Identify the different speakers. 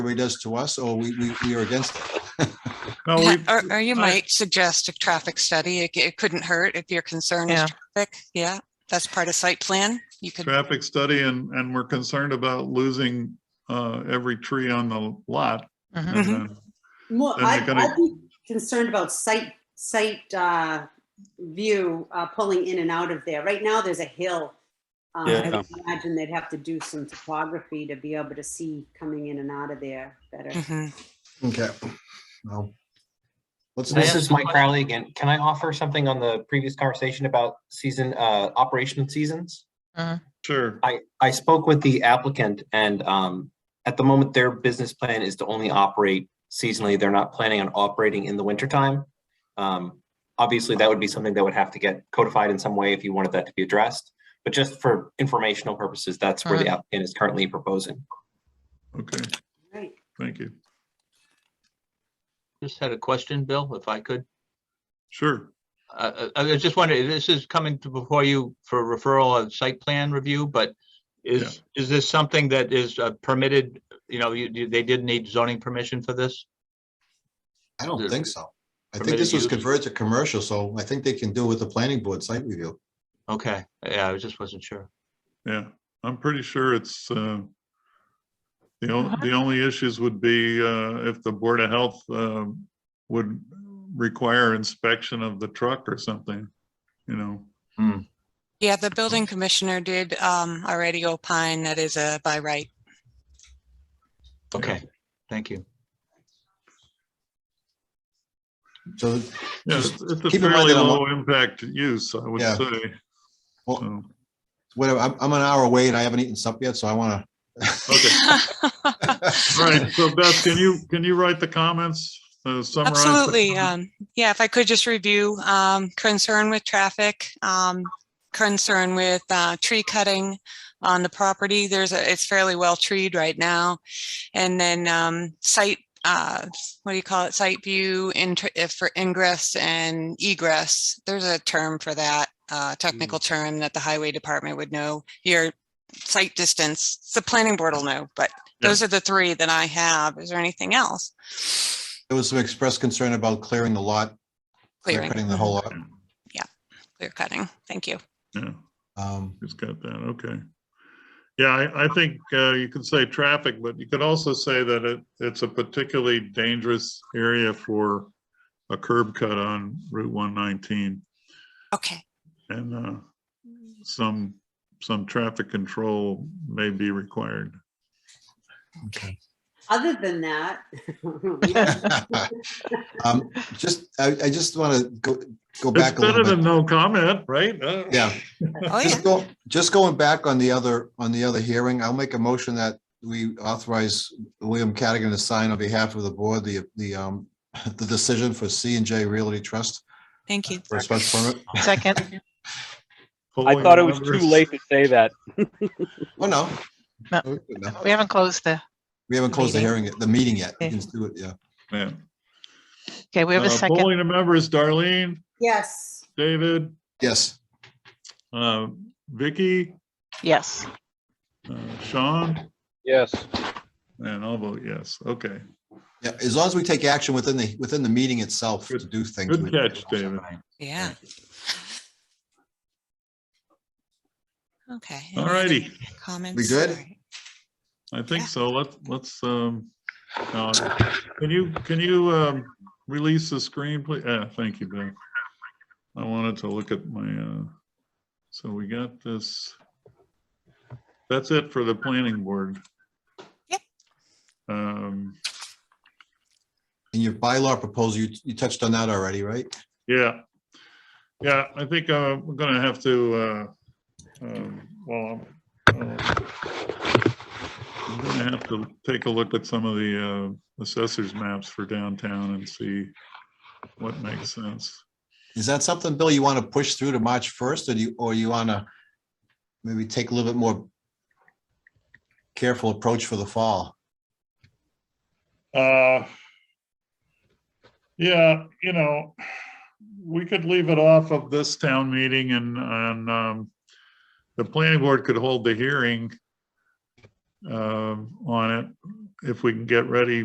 Speaker 1: survey does to us, or we, we, we are against it.
Speaker 2: No,
Speaker 3: Yeah,
Speaker 2: we,
Speaker 3: Or, or you
Speaker 2: I-
Speaker 3: might suggest a traffic study. It, it couldn't hurt if your concern
Speaker 4: Yeah.
Speaker 3: is traffic. Yeah, that's part of site plan. You could,
Speaker 2: traffic study and, and we're concerned about losing, uh, every tree on the lot. And
Speaker 4: Mhm.
Speaker 2: uh, then-
Speaker 5: Well,
Speaker 2: Then
Speaker 5: I'd,
Speaker 2: they're gonna-
Speaker 5: I'd be concerned about site, site, uh, view, uh, pulling in and out of there. Right now, there's a hill. Um, I
Speaker 6: Yeah.
Speaker 5: would imagine they'd have to do some topography to be able to see coming in and out of there better.
Speaker 3: Mhm.
Speaker 1: Okay. Well, Let's,
Speaker 7: This is Mike Crowley again. Can I offer something on the previous conversation about season, uh, operation seasons?
Speaker 2: Sure.
Speaker 7: I, I spoke with the applicant and, um, at the moment, their business plan is to only operate seasonally. They're not planning on operating in the wintertime. Um, obviously, that would be something that would have to get codified in some way if you wanted that to be addressed. But just for informational purposes, that's where the applicant is currently proposing.
Speaker 2: Okay,
Speaker 5: Right.
Speaker 2: thank you.
Speaker 8: Just had a question, Bill, if I could.
Speaker 2: Sure.
Speaker 8: Uh, uh, I was just wondering, this is coming to before you for referral of site plan review, but is, is this something that is uh, permitted? You know, you, you- they did need zoning permission for this?
Speaker 1: I don't think so. I think
Speaker 8: Permitted
Speaker 1: this was
Speaker 8: use.
Speaker 1: converted to commercial, so I think they can do with the planning board site review.
Speaker 8: Okay, yeah, I just wasn't sure.
Speaker 2: Yeah, I'm pretty sure it's, uh, the only, the only issues would be, uh, if the Board of Health, um, would require inspection of the truck or something, you know?
Speaker 3: yeah, the building commissioner did, um, already opine that is a by right.
Speaker 8: Okay, thank you.
Speaker 1: So,
Speaker 2: Yeah, it's it's a
Speaker 1: Keep in mind
Speaker 2: fairly
Speaker 1: that a lo-
Speaker 2: low impact use, I would
Speaker 1: Yeah.
Speaker 2: say.
Speaker 1: Well-
Speaker 2: So,
Speaker 1: whatever, I'm, I'm an hour away and I haven't eaten supper yet, so I want
Speaker 2: Okay. All right, so Beth, can you, can you write the comments? uh, summarize the
Speaker 3: Absolutely.
Speaker 2: comments?
Speaker 3: Um, yeah, if I could just review, um, concern with traffic, um, concern with, uh, tree cutting on the property. There's a, it's fairly well treed right now. And then, um, site, uh, what do you call it? Site view int- if for ingress and egress. There's a term for that, uh, technical term that the highway department would know. Your site distance, the planning board will know, but
Speaker 2: Yeah.
Speaker 3: those are the three that I have. Is there anything else?
Speaker 1: to, there was some expressed concern about clearing the lot,
Speaker 3: Clearing.
Speaker 1: cutting the whole lot.
Speaker 3: clear cutting. Thank you.
Speaker 2: Yeah.
Speaker 1: Um,
Speaker 2: Just got that, okay. Yeah, I, I think uh, you could say traffic, but you could also say that it, it's a particularly dangerous area for a curb cut on Route 119
Speaker 3: Okay,
Speaker 2: and uh, some, some traffic control may be required.
Speaker 1: okay.
Speaker 5: Other than that.
Speaker 1: Um, Just, I, I just want to go, go
Speaker 2: It's
Speaker 1: back a
Speaker 2: better
Speaker 1: little
Speaker 2: than
Speaker 1: bit.
Speaker 2: no comment, right? Uh,
Speaker 1: Yeah.
Speaker 3: oh yeah,
Speaker 1: Just go, just going back on the other, on the other hearing, I'll make a motion that we authorize William Cadigan to sign on behalf of the board, the, the, um, the decision for C and J Realty Trust
Speaker 3: thank you.
Speaker 1: for a special permit.
Speaker 4: Second,
Speaker 9: I
Speaker 2: polling
Speaker 9: thought it was too
Speaker 2: numbers.
Speaker 9: late to say that.
Speaker 1: Oh, no.
Speaker 4: No.
Speaker 1: No.
Speaker 4: we haven't closed the,
Speaker 1: We haven't closed the
Speaker 4: Meeting.
Speaker 1: hearing, yet- the meeting yet. We
Speaker 4: Okay.
Speaker 1: can do it, yeah.
Speaker 2: Yeah.
Speaker 4: okay, we have
Speaker 2: Uh,
Speaker 4: a second.
Speaker 2: Polling the members, Darlene,
Speaker 5: Yes,
Speaker 2: David,
Speaker 1: Yes,
Speaker 2: uh, Vicky,
Speaker 4: Yes,
Speaker 2: uh, Sean,
Speaker 9: Yes,
Speaker 2: and I'll vote yes. Okay.
Speaker 1: yeah, as long as we take action within the, within the meeting itself to do things.
Speaker 2: Good
Speaker 1: we-
Speaker 2: catch, David.
Speaker 3: Yeah. Okay.
Speaker 2: All
Speaker 3: any other
Speaker 2: righty.
Speaker 3: Comments?
Speaker 1: We good?
Speaker 3: All right.
Speaker 2: I think
Speaker 3: Yeah.
Speaker 2: so. Let's, let's, um, uh, can you, can you, um, release the screen, please? Uh, thank you, Ben. I wanted to look at my, uh, so we got this. That's it for the planning board.
Speaker 3: Yep.
Speaker 2: Um,
Speaker 1: In your bylaw proposal, you, you touched on that already, right?
Speaker 2: yeah. Yeah, I think, uh, we're gonna have to, uh, um, well, I'm, uh, I'm gonna have to take a look at some of the uh, assessors maps for downtown and see what makes sense.
Speaker 1: Is that something, Bill, you want to push through to March first, or do you, or you want to maybe take a little bit more careful approach for the fall?
Speaker 2: Uh, Yeah, you know, we could leave it off of this town meeting and, and um, the planning board could hold the hearing um, on it if we can get ready